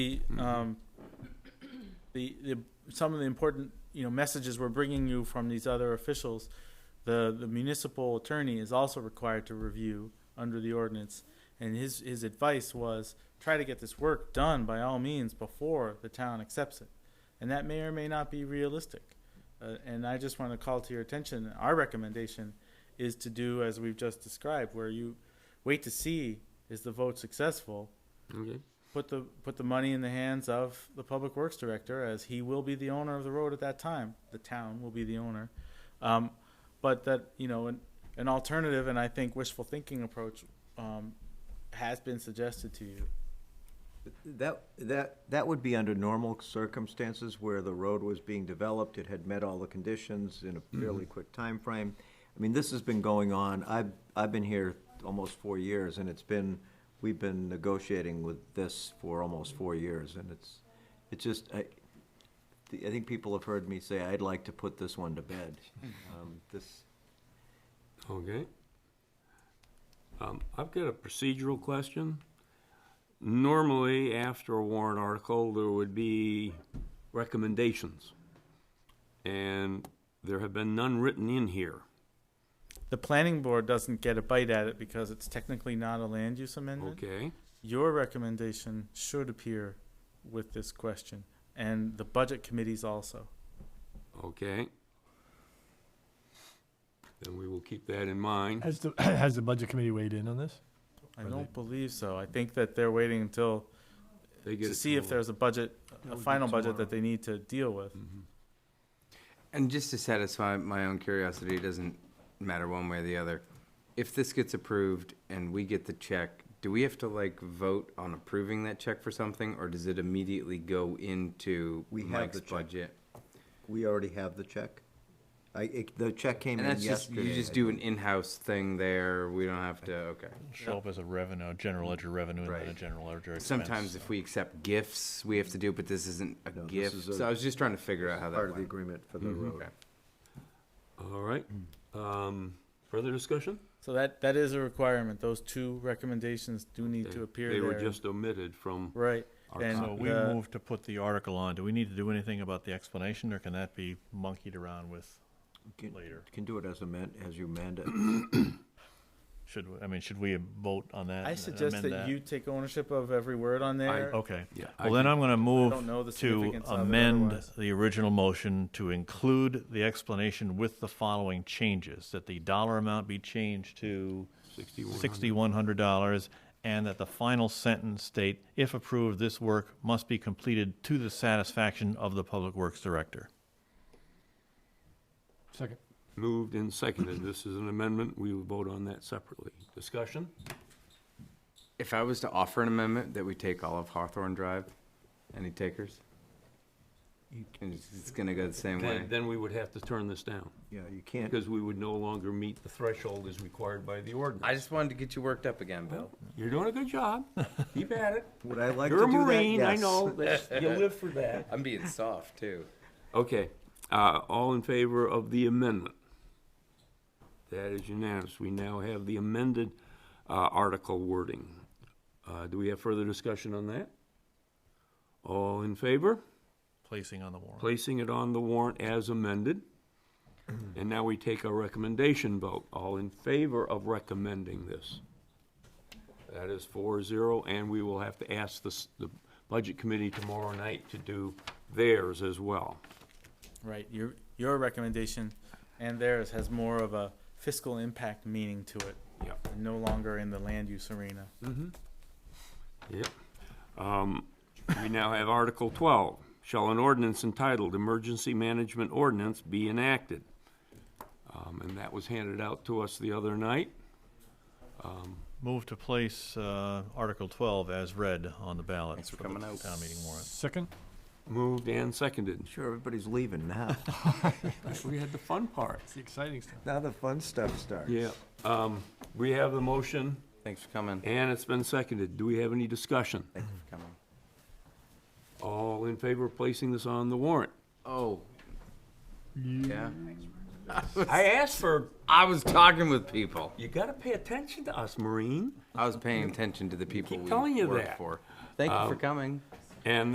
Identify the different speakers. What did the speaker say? Speaker 1: the, um, the, the, some of the important, you know, messages we're bringing you from these other officials, the, the municipal attorney is also required to review under the ordinance. And his, his advice was try to get this work done by all means before the town accepts it. And that may or may not be realistic. Uh, and I just want to call to your attention, our recommendation is to do as we've just described, where you wait to see is the vote successful
Speaker 2: Okay.
Speaker 1: put the put the money in the hands of the public works director, as he will be the owner of the road at that time. The town will be the owner, um, but that you know an an alternative and I think wishful thinking approach um, has been suggested to you.
Speaker 3: That, that, that would be under normal circumstances where the road was being developed, it had met all the conditions in
Speaker 4: Mm-hmm.
Speaker 3: a fairly quick time frame. I mean, this has been going on, I've, I've been here almost four years, and it's been, we've been negotiating with this for almost four years, and it's, it's just, I, the- I think people have heard me say, I'd like to put this one to bed. Um, This,
Speaker 2: Okay. Um, I've got a procedural question. Normally, after a warrant article, there would be recommendations. And there have been none written in here.
Speaker 1: The planning board doesn't get a bite at it because it's technically not a land use amendment.
Speaker 2: Okay,
Speaker 1: Your recommendation should appear with this question, and the budget committees also.
Speaker 2: okay. Then we will keep that in mind.
Speaker 5: Has the, has the budget committee weighed in on this?
Speaker 1: I
Speaker 5: Are they-
Speaker 1: don't believe so. I think that they're waiting until
Speaker 2: They get
Speaker 1: to
Speaker 2: it
Speaker 1: see if
Speaker 2: tomorrow.
Speaker 1: there's a budget,
Speaker 5: That
Speaker 1: a
Speaker 5: would be
Speaker 1: final budget that
Speaker 5: tomorrow.
Speaker 1: they need to deal with.
Speaker 2: Mm-hmm.
Speaker 4: And just to satisfy my own curiosity, it doesn't matter one way or the other. If this gets approved and we get the check, do we have to like vote on approving that check for something, or does it immediately go into
Speaker 3: We have
Speaker 4: Mike's
Speaker 3: the check.
Speaker 4: budget?
Speaker 3: we already have the check. I, it- the check came
Speaker 4: And
Speaker 3: in
Speaker 4: that's just,
Speaker 3: yesterday.
Speaker 4: you just
Speaker 3: I
Speaker 4: do
Speaker 3: think.
Speaker 4: an in-house thing there, we don't have to, okay.
Speaker 6: show up as a revenue, general ledger revenue and then a
Speaker 4: Right.
Speaker 6: general ledger expense.
Speaker 4: Sometimes if we accept gifts, we have to do, it, but this isn't a
Speaker 3: No, this is
Speaker 4: gift,
Speaker 3: a-
Speaker 4: so I was just trying to figure out how that
Speaker 3: Part of the
Speaker 4: went.
Speaker 3: agreement for the road.
Speaker 4: Okay.
Speaker 2: All right. Um, further discussion?
Speaker 1: So that, that is a requirement. Those two recommendations do need
Speaker 2: They-
Speaker 1: to appear
Speaker 2: They were
Speaker 1: there.
Speaker 2: just omitted from
Speaker 1: Right.
Speaker 2: our
Speaker 1: And
Speaker 2: copy.
Speaker 6: So we
Speaker 1: the-
Speaker 6: move to put the article on. Do we need to do anything about the explanation, or can that be monkeyed around with
Speaker 3: Can-
Speaker 6: later?
Speaker 3: Can do it as amend, as you amend it.
Speaker 6: Should, we- I mean, should we vote on that?
Speaker 1: I
Speaker 6: and
Speaker 1: suggest
Speaker 6: amend
Speaker 1: that you take ownership of every word on there.
Speaker 6: Okay.
Speaker 2: Yeah, I
Speaker 6: Well, then
Speaker 2: can-
Speaker 6: I'm gonna
Speaker 1: don't know the
Speaker 6: move to
Speaker 1: significance of it
Speaker 6: amend
Speaker 1: otherwise.
Speaker 6: the original motion to include the explanation with the following changes. That the dollar amount be changed to sixty-one hundred dollars, and that the final sentence state, if approved, this work must be completed to the satisfaction of the Public Works Director.
Speaker 5: Second.
Speaker 2: Moved and seconded. This is an amendment. We will vote on that separately. Discussion?
Speaker 4: If I was to offer an amendment that we take all of Hawthorne Drive, any takers? And it's, it's gonna go the same way.
Speaker 2: Then, then we would have to turn this down,
Speaker 3: Yeah, you can't.
Speaker 2: because we would no longer meet the threshold as required by the
Speaker 4: I
Speaker 2: ordinance.
Speaker 4: just wanted to get you worked up again, Bill.
Speaker 2: You're doing a good job. Keep at it.
Speaker 3: Would I like to
Speaker 2: You're a
Speaker 3: do that?
Speaker 2: Marine, I
Speaker 3: Yes.
Speaker 2: know. That's- You live for that.
Speaker 4: I'm being soft too.
Speaker 2: Okay, uh, all in favor of the amendment? That is unanimous. We now have the amended, uh, article wording. Uh, do we have further discussion on that? All in favor?
Speaker 6: Placing on the warrant.
Speaker 2: Placing it on the warrant as amended. And now we take a recommendation vote. All in favor of recommending this? That is four zero, and we will have to ask the, s- the budget committee tomorrow night to do theirs as well.
Speaker 1: Right. Your, your recommendation and theirs has more of a fiscal impact meaning to it.
Speaker 2: Yep.
Speaker 1: and No longer in the land use arena.
Speaker 2: Yep. Um, We now have Article 12. Shall an ordinance entitled Emergency Management Ordinance be enacted? Um, And that was handed out to us the other night.
Speaker 6: Move to place, uh, Article twelve as read on the ballot
Speaker 4: Thanks for
Speaker 6: for the
Speaker 4: coming out.
Speaker 6: town meeting warrant.
Speaker 5: Second?
Speaker 2: Moved and seconded.
Speaker 3: Sure, everybody's leaving now.
Speaker 2: We had the fun part.
Speaker 5: It's the exciting stuff.
Speaker 3: now the fun stuff starts.
Speaker 2: Yeah. um, We have the motion,
Speaker 4: Thanks for coming.
Speaker 2: and it's been seconded. Do we have any discussion?
Speaker 4: Thanks for coming.
Speaker 2: All in favor of placing this on the warrant?
Speaker 4: Oh. Yeah.
Speaker 2: I asked for,
Speaker 4: I was talking with people.
Speaker 2: you got to pay attention to us, Marine.
Speaker 4: I was paying attention to the people
Speaker 2: Keep
Speaker 4: we
Speaker 2: telling you
Speaker 4: work
Speaker 2: that.
Speaker 4: Um, for. Thank you for coming.
Speaker 2: And